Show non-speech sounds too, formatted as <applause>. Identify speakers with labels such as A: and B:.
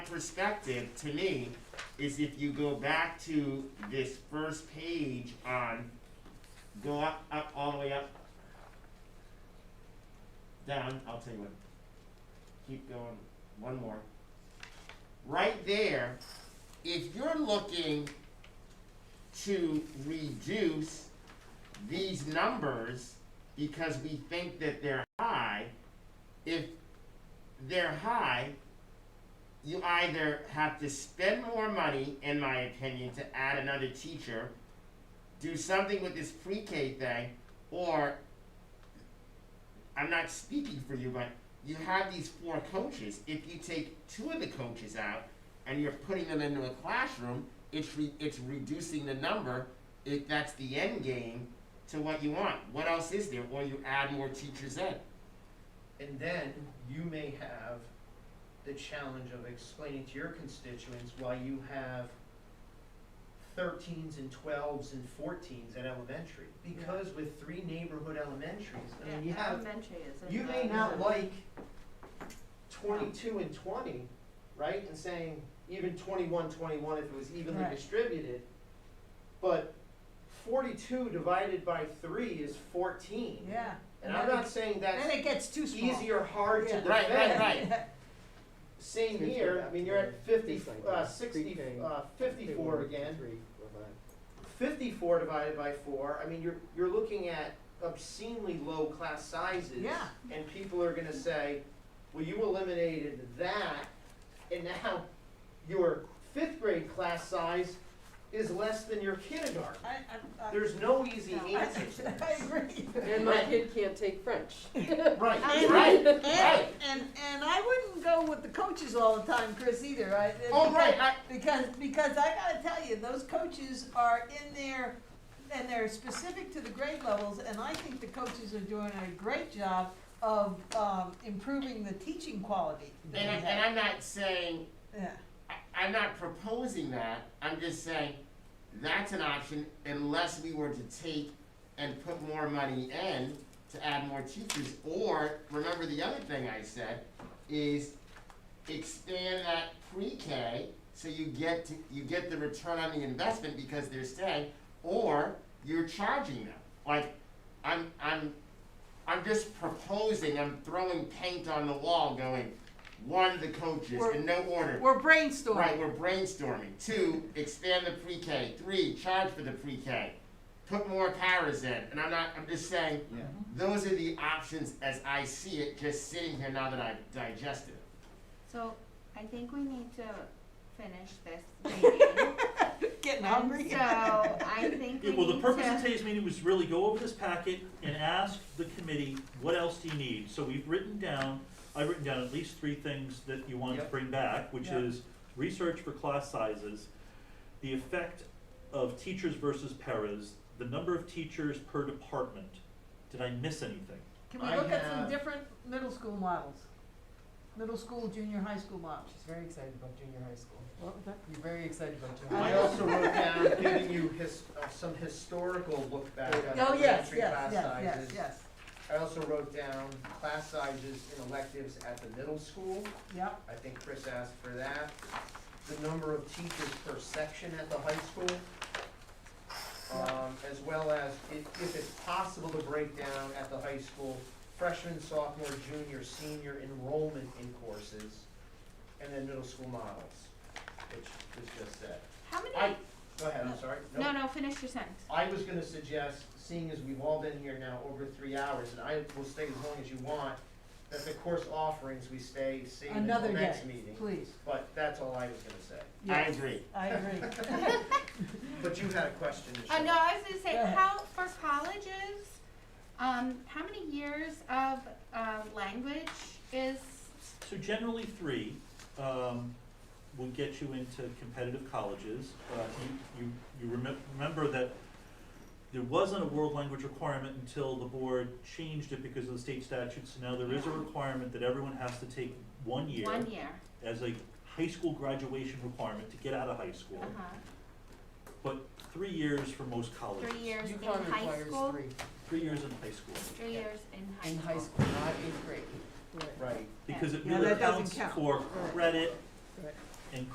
A: perspective, to me, is if you go back to this first page on, go up, up, all the way up, down, I'll tell you what, keep going, one more. Right there, if you're looking to reduce these numbers because we think that they're high, if they're high, you either have to spend more money, in my opinion, to add another teacher, do something with this pre-K thing, or I'm not speaking for you, but you have these four coaches. If you take two of the coaches out and you're putting them into a classroom, it's re- it's reducing the number. If that's the end game to what you want, what else is there? Or you add more teachers in.
B: And then you may have the challenge of explaining to your constituents why you have thirteens and twelves and fourteens at elementary. Because with three neighborhood elementaries, I mean, you
C: Yeah,
B: have,
C: elementary is in
B: you may
C: the-
B: not like twenty-two and twenty, right? And saying even 21, 21 if it was evenly
D: Right.
B: distributed. But forty-two divided by three is fourteen.
D: Yeah.
B: And I'm not saying that's
D: Then it gets too small.
B: easy or hard to
D: Yeah.
B: defend.
A: Right, right, right.
B: Same
E: Kids
B: here,
E: go
B: I mean, you're at
E: back to
B: fifty,
E: things like
B: uh,
E: that.
B: sixty,
E: Pre-K,
B: uh, fifty-four again.
E: Three, four, five.
B: Fifty-four divided by four, I mean, you're, you're looking at obscenely low class sizes.
D: Yeah.
B: And people are gonna say, well, you eliminated that, and now your fifth grade class size is less than your kindergarten.
D: I, I, I.
B: There's no easy
C: No,
D: I,
B: answers.
D: <laughs> I agree.
E: And my kid can't take French.
B: Right,
D: And-
B: right,
D: And,
B: right.
D: and, and I wouldn't go with the coaches all the time, Chris, either, I.
B: Oh, right, I-
D: Because, because I gotta tell you, those coaches are in there, and they're specific to the grade levels, and I think the coaches are doing a great job of, um, improving the teaching quality. that
A: And, I,
D: we
A: and
D: have.
A: I'm not saying
D: Yeah,
A: I, I'm not proposing that. I'm just saying that's an option unless we were to take and put more money in to add more teachers. Or remember the other thing I said is expand that pre-K so you get to, you get the return on the investment because they're staying, or you're charging them. Like I'm I'm I'm just proposing. I'm throwing paint on the wall, going one the coaches in no order.
D: we're brainstorming.
A: Right, we're brainstorming. Two, expand the pre-K. Three, charge for the pre-K. Put more paras in. And I'm not, I'm just saying,
B: Yeah.
A: those are the options as I see it, just sitting here now that I've digested it.
C: So I think we need to finish
B: <laughs>
C: this meeting.
D: Getting hungry.
C: And so I think
B: <laughs>
C: we
F: Yeah, well, the
C: need
F: purpose
C: to-
F: of today's meeting was really go over this packet and ask the committee, what else do you need? So we've written down, I've written down at least three things that you wanted to
B: Yep.
F: bring back, which
D: Yep.
F: is research for class sizes, the effect of teachers versus paras, the number of teachers per department. Did I miss anything?
D: Can we
B: I
D: look at
B: have-
D: some different middle school models? Middle school, junior high school models?
E: She's very excited about junior high school.
D: What was that?
E: You're very excited about junior high
B: I
E: school.
B: also wrote down giving you his, uh, some historical look back on
D: Oh, yes,
B: elementary
D: yes,
B: class sizes.
D: yes, yes, yes,
B: I also wrote down class sizes in electives at the middle school.
D: yep.
B: I think Chris asked for that. The number of teachers per section at the high school. Um, as well as if, if it's possible to break down at the high school freshman, sophomore, junior, senior enrollment in courses. And then middle school models, which was just said.
C: How many?
B: I, go ahead, I'm sorry. Nope.
C: no, no, finish your sentence.
B: I was gonna suggest, seeing as we've all been here now over three hours, and I will stay as long as you want, that the course offerings, we stay same until
D: Another day,
B: next meeting.
D: please.
B: But that's all I was gonna say.
A: I
D: Yes,
A: agree.
D: I agree.
B: <laughs> But you had a question, Michelle.
C: Uh, no, I was gonna say,
D: Go ahead.
C: how, for colleges, um, how many years of, uh, language is,
F: So generally three, um, would get you into competitive colleges. Uh, you, you, you remem- remember that there wasn't a world language requirement until the board changed it because of the state statute, so now there is a requirement that everyone has to take one year
C: one year,
F: as a high school graduation requirement to get out of high school,
C: uh-huh,
F: but three years for most colleges.
C: three years in
E: UConn
C: high
E: requires
C: school?
E: three
F: Three years in high school,
C: Three years in high
E: in
C: school.
E: high school, not eighth grade.
B: Right.
F: because it
D: Yeah,
F: really
D: that doesn't
F: counts
D: count.
F: for
D: Right.
F: credit
E: Right.